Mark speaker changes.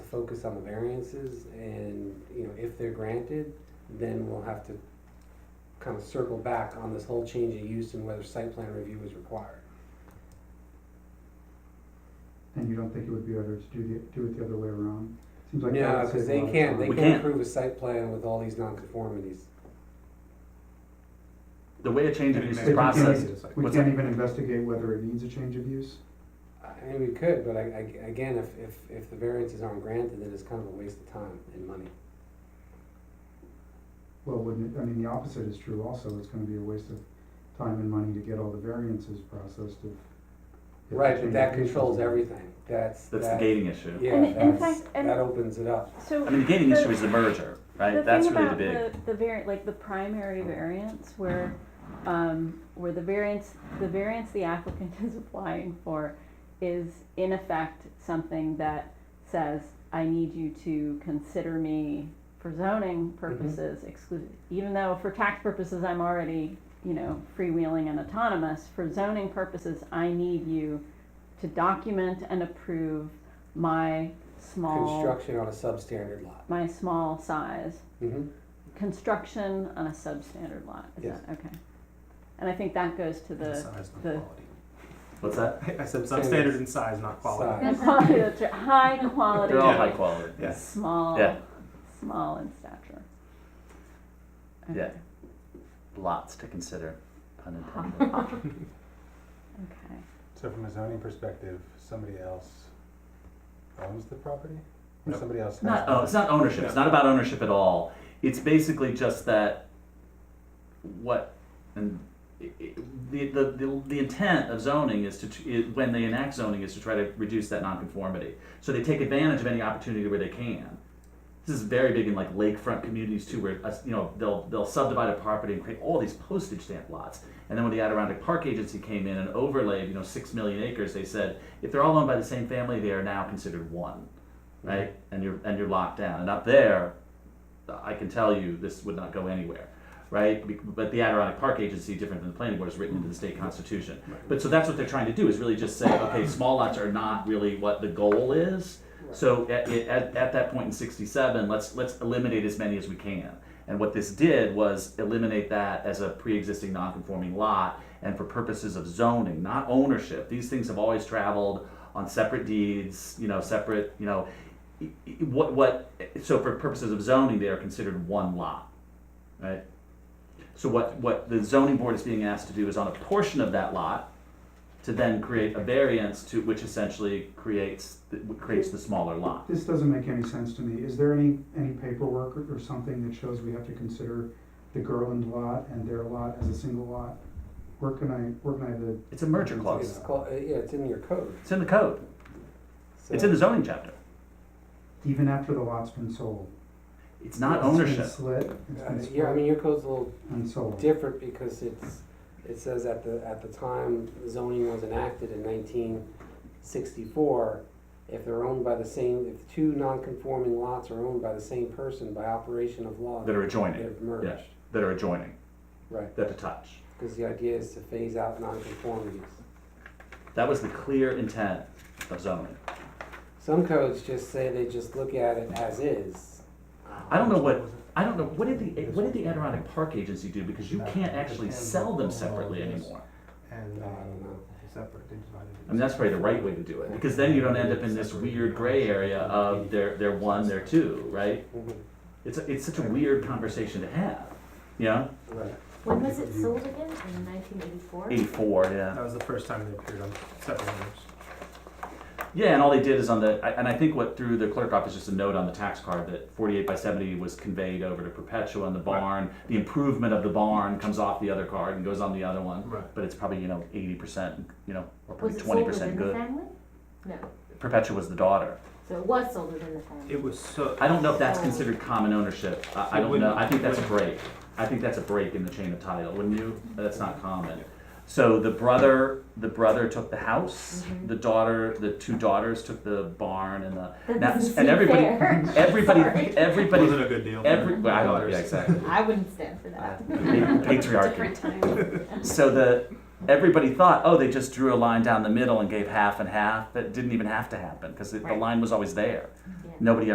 Speaker 1: focus on the variances and, you know, if they're granted, then we'll have to kind of circle back on this whole change of use and whether site plan review is required.
Speaker 2: And you don't think it would be better to do the, do it the other way around? Seems like that
Speaker 1: No,
Speaker 2: would
Speaker 1: because
Speaker 2: save a
Speaker 1: they
Speaker 2: lot of
Speaker 1: can't, they
Speaker 2: time.
Speaker 3: We
Speaker 1: can't
Speaker 3: can't.
Speaker 1: approve a site plan with all these nonconformities.
Speaker 3: The way a change of use
Speaker 2: They
Speaker 3: is
Speaker 2: can't-
Speaker 3: processed,
Speaker 2: We
Speaker 3: what's
Speaker 2: can't even investigate whether it needs a change of use?
Speaker 1: I mean, we could, but I, I, again, if, if, if the variances aren't granted, then it's kind of a waste of time and money.
Speaker 2: Well, wouldn't, it- I mean, the opposite is true also, it's gonna be a waste of time and money to get all the variances processed if. if the
Speaker 1: Right,
Speaker 2: change
Speaker 1: but
Speaker 2: of
Speaker 1: that
Speaker 2: use
Speaker 1: controls
Speaker 2: isn't-
Speaker 1: everything, that's,
Speaker 3: that's the
Speaker 1: that,
Speaker 3: gating issue.
Speaker 1: yeah,
Speaker 4: And in
Speaker 1: that's,
Speaker 4: fact- and-
Speaker 1: that opens it up.
Speaker 4: So
Speaker 3: I mean, the gating
Speaker 4: The-
Speaker 3: issue is the merger,
Speaker 4: the
Speaker 3: right? That's
Speaker 4: thing
Speaker 3: really the
Speaker 4: about
Speaker 3: big.
Speaker 4: the, the variant, like the primary variance, where
Speaker 3: Uh-huh.
Speaker 4: um, where the variance, the variance the applicant is applying for, is in effect something that says I need you to consider me for
Speaker 3: Mm-hmm.
Speaker 4: zoning purposes exclusive, even though for tax purposes I'm already you know freewheeling and autonomous. For zoning purposes, I need you to document and approve my small
Speaker 1: Construction on a substandard lot.
Speaker 4: my small size
Speaker 1: hmm
Speaker 4: construction on a substandard lot, is
Speaker 1: Yes.
Speaker 4: that, okay. And I think that goes to
Speaker 5: In
Speaker 4: the,
Speaker 5: size, not
Speaker 4: the-
Speaker 5: quality.
Speaker 3: What's that?
Speaker 5: I said substandard in size, not quality.
Speaker 1: Size.
Speaker 4: quality, that's right, high quality,
Speaker 3: They're all high quality.
Speaker 5: Yeah.
Speaker 4: small,
Speaker 3: Yeah.
Speaker 4: small in stature.
Speaker 3: Yeah.
Speaker 4: Okay.
Speaker 3: Lots to consider, pun intended.
Speaker 4: Okay,
Speaker 6: So from a zoning perspective, somebody else owns the property? Or
Speaker 5: Nope.
Speaker 6: somebody else has?
Speaker 3: not, oh, it's not ownership. It's not about ownership at all. It's basically just that what and i- i- the, the, the, the intent of zoning is to tr- i when they enact zoning is to try to reduce that nonconformity. So they take advantage of any opportunity where they can. This is very big in like lakefront communities too, where uh, you know they'll they'll subdivide a property and create all these postage stamp lots. And then when the Adirondack Park Agency came in and overlaid you know six million acres, they said if they're all owned by the same family, they are now considered one, right? And you're and you're locked down. And up there, I can tell you this would not go anywhere, right? Be- But the Adirondack Park Agency, different than the planning board, is written into the state constitution. But so that's what they're trying to do is really just say, okay, small lots are not really what the goal is. So at, at, at that point in '67, let's let's eliminate as many as we can. And what this did was eliminate that as a pre-existing non-conforming lot, and for purposes of zoning, not ownership. These things have always traveled on separate deeds, you know, separate, you know, i- i- what what. So for purposes of zoning, they are considered one lot, right? So what what the zoning board is being asked to do is on a portion of that lot, to then create a variance to which essentially creates th- creates the smaller lot.
Speaker 2: This doesn't make any sense to me. Is there any, any paperwork or- or something that shows we have to consider the Gerland lot and their lot as a single lot? Where can I, where can I, have the,
Speaker 3: It's a merger
Speaker 1: It's
Speaker 3: clause.
Speaker 1: called, uh, yeah, it's in your code.
Speaker 3: It's in the code. It's in the zoning chapter.
Speaker 2: even after the lot's been sold?
Speaker 3: It's not
Speaker 2: It's been
Speaker 3: ownership.
Speaker 2: slit, it's
Speaker 1: Uh,
Speaker 2: been
Speaker 1: Yeah, I
Speaker 2: split
Speaker 1: mean, your code's a little
Speaker 2: and sold.
Speaker 1: different because it's, it says at the, at the time zoning was enacted in nineteen sixty-four, if they're owned by the same, if two non-conforming lots are owned by the same person by operation of law,
Speaker 3: That are adjoining.
Speaker 1: they're merged.
Speaker 3: That are adjoining.
Speaker 1: Right.
Speaker 3: That to touch.
Speaker 1: Because the idea is to phase out non-conformities.
Speaker 3: That was the clear intent of zoning.
Speaker 1: Some codes just say they just look at it as is.
Speaker 3: I don't know what I don't know what did the what did the Adirondack Park Agency do because you can't actually sell them separately anymore.
Speaker 5: And,
Speaker 1: I don't know.
Speaker 5: um, separate, they divided it.
Speaker 3: I mean that's probably the right way to do it because then you don't end up in this weird gray area of they're they're one, they're two, right?
Speaker 1: Mhm.
Speaker 3: It's, it's such a weird conversation to have. You know?
Speaker 1: Right.
Speaker 7: When was it sold again? In nineteen eighty-four?
Speaker 3: 84, yeah.
Speaker 5: That was the first time they appeared on separate owners.
Speaker 3: Yeah, and all they did is on the, I- and I think what through the clerk office, just a note on the tax card that 48 by 70 was conveyed over to Perpetua and the barn. The improvement of the barn comes off the other card and goes on the other one.
Speaker 5: Right.
Speaker 3: But it's probably, you know, 80%, you know, or
Speaker 7: Was
Speaker 3: probably
Speaker 7: it sold
Speaker 3: 20%
Speaker 7: within the
Speaker 3: good.
Speaker 7: family? No,
Speaker 3: Perpetua was the daughter.
Speaker 7: so it was sold within the family.
Speaker 5: It was so,
Speaker 3: I don't know if that's
Speaker 7: Oh.
Speaker 3: considered common ownership. I, I
Speaker 5: It
Speaker 3: don't know.
Speaker 5: wouldn't-
Speaker 3: I think that's a
Speaker 5: wouldn't.
Speaker 3: break. I think that's a break in the chain of title, wouldn't you? That's not common. So the brother, the brother took the house.
Speaker 7: Mhm.
Speaker 3: The daughter, the two daughters took the barn and the.
Speaker 7: That
Speaker 3: now-
Speaker 7: doesn't
Speaker 3: and
Speaker 7: seem
Speaker 3: everybody,
Speaker 7: fair.
Speaker 3: everybody,
Speaker 7: Sorry.
Speaker 3: everybody,
Speaker 5: wasn't a good deal.
Speaker 3: every. well, I don't, yeah,
Speaker 5: Daughters.
Speaker 3: exactly.
Speaker 7: I wouldn't stand for
Speaker 3: Uh,
Speaker 7: that.
Speaker 3: pa- Patriarchy.
Speaker 4: different time.
Speaker 3: So the everybody thought, oh, they just drew a line down the middle and gave half and half. That didn't even have to happen because the
Speaker 7: Right.
Speaker 3: line was always there.
Speaker 7: Yeah.
Speaker 3: Nobody